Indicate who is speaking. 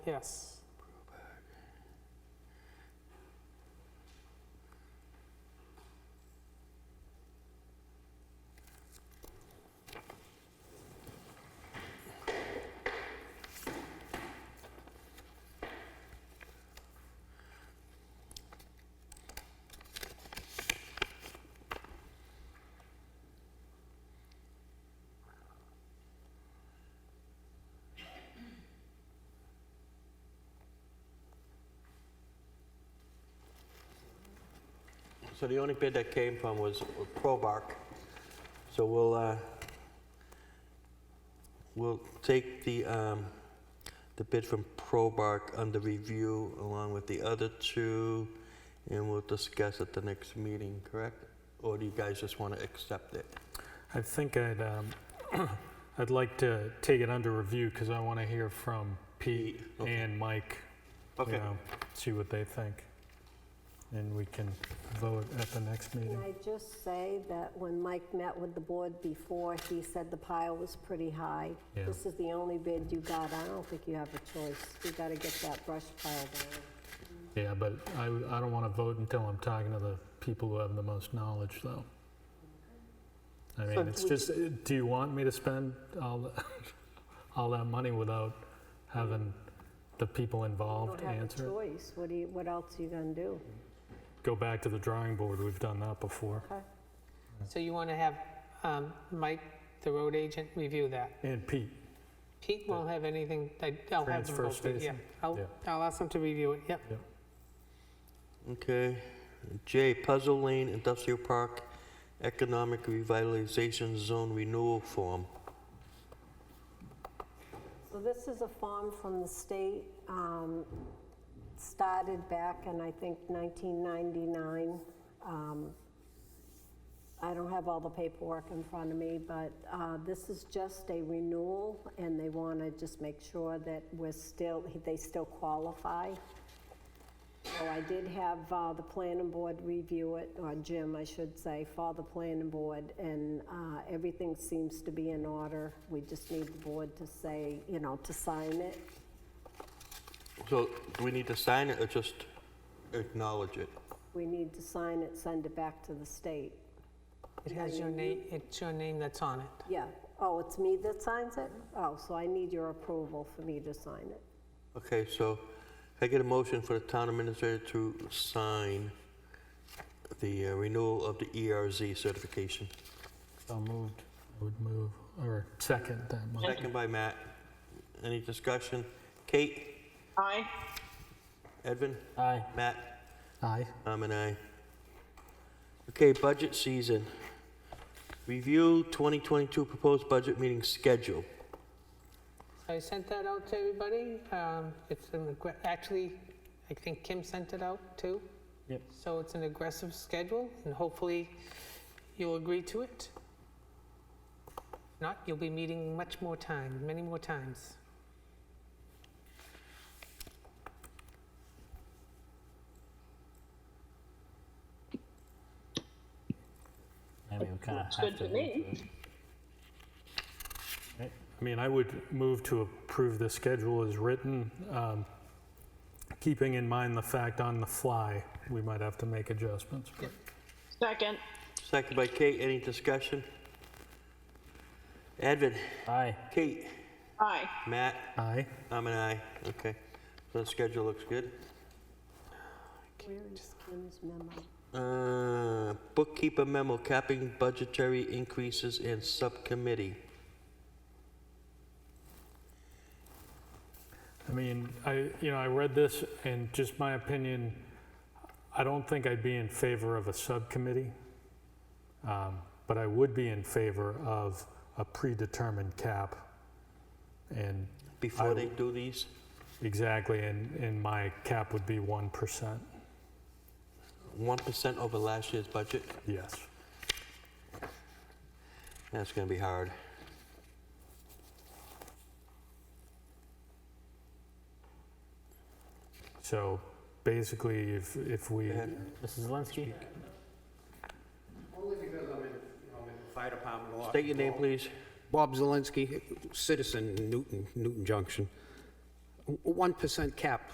Speaker 1: Yes.
Speaker 2: So the only bid that came from was Probark. So we'll, uh, we'll take the, um, the bid from Probark under review along with the other two, and we'll discuss at the next meeting, correct? Or do you guys just want to accept it?
Speaker 1: I think I'd, um, I'd like to take it under review because I want to hear from Pete
Speaker 2: Pete, okay.
Speaker 1: and Mike. you know, See what they think. And we can vote at the next
Speaker 3: Can
Speaker 1: meeting.
Speaker 3: I just say that when Mike met with the board before, he said the pile was pretty high.
Speaker 1: Yeah.
Speaker 3: This is the only bid you got. I don't think you have a choice. You gotta get that brush pile down.
Speaker 1: Yeah, but I, I don't want to vote until I'm talking to the people who have the most knowledge, though. I mean,
Speaker 3: So
Speaker 1: it's
Speaker 3: we-
Speaker 1: just, uh, do you want me to spend all, the- all that money without having the people involved
Speaker 3: You don't
Speaker 1: answer?
Speaker 3: have a
Speaker 1: it?
Speaker 3: choice. What do you, what else are you gonna do?
Speaker 1: Go back to the drawing board, we've done that before.
Speaker 3: Okay.
Speaker 4: So you want to have um, Mike, the road agent, review that.
Speaker 1: And Pete,
Speaker 4: Pete won't have anything, I- I'll have him
Speaker 1: Transfer
Speaker 4: vote it, yeah.
Speaker 1: station,
Speaker 4: I'll,
Speaker 1: yeah.
Speaker 4: I'll ask him to review it, yep.
Speaker 2: Okay. J, Puzzle Lane Industrial Park Economic Revitalization Zone Renewal Form.
Speaker 3: So this is a farm from the state, um, started back in, I think, 1999. Um, I don't have all the paperwork in front of me, but uh, this is just a renewal, and they want to just make sure that we're still, they still qualify. So Oh, I did have uh, the planning board review it, or Jim, I should say, for the planning board, and uh, everything seems to be in order. We just need the board to say, you know, to sign it.
Speaker 2: So do we need to sign it or just acknowledge it?
Speaker 3: We need to sign it, send it back to the state.
Speaker 4: It has your name, it's your name that's on it.
Speaker 3: Yeah, oh, it's me that signs it? Oh, so I need your approval for me to sign it.
Speaker 2: Okay, so can I get a motion for the town administrator to sign the uh, renewal of the ERZ certification.
Speaker 1: so moved. I would move, or second that motion.
Speaker 2: Second by Matt. Any discussion? Kate?
Speaker 4: Aye.
Speaker 2: Edvin?
Speaker 1: Aye.
Speaker 2: Matt?
Speaker 1: Aye.
Speaker 2: I'm an aye. Okay, budget season. Review 2022 proposed budget meeting schedule.
Speaker 4: I sent that out to everybody. Um, It's an aggr- actually, I think Kim sent it out too.
Speaker 1: Yep.
Speaker 4: So it's an aggressive schedule and hopefully you'll agree to it. Not, you'll be meeting much more time, many more times.
Speaker 5: I mean, we kind of have to. me.
Speaker 1: I mean, I would move to approve the schedule as written, um, keeping in mind the fact on the fly, we might have to make adjustments. but-
Speaker 6: Second.
Speaker 2: Second by Kate. Any discussion? Edvin?
Speaker 5: Aye.
Speaker 2: Kate?
Speaker 6: Aye.
Speaker 2: Matt?
Speaker 1: Aye.
Speaker 2: I'm an aye. Okay. So the schedule looks good.
Speaker 3: Where is Kim's memo?
Speaker 2: Uh, Bookkeeper memo capping budgetary increases in subcommittee.
Speaker 1: I mean, I, you know, I read this and just my opinion, I don't think I'd be in favor of a subcommittee, um, but I would be in favor of a predetermined cap. And
Speaker 2: Before
Speaker 1: I-
Speaker 2: they do these,
Speaker 1: exactly, and, and my cap would be 1%.
Speaker 2: 1% over last year's budget,
Speaker 1: Yes.
Speaker 2: that's going to be hard.
Speaker 1: So basically, if, if we,
Speaker 5: Mrs. Zelinski?
Speaker 7: Only because I'm in, I'm in the fire department a lot.
Speaker 2: State your name, please.
Speaker 7: Bob Zelinski, citizen, Newton, Newton Junction. w- 1% cap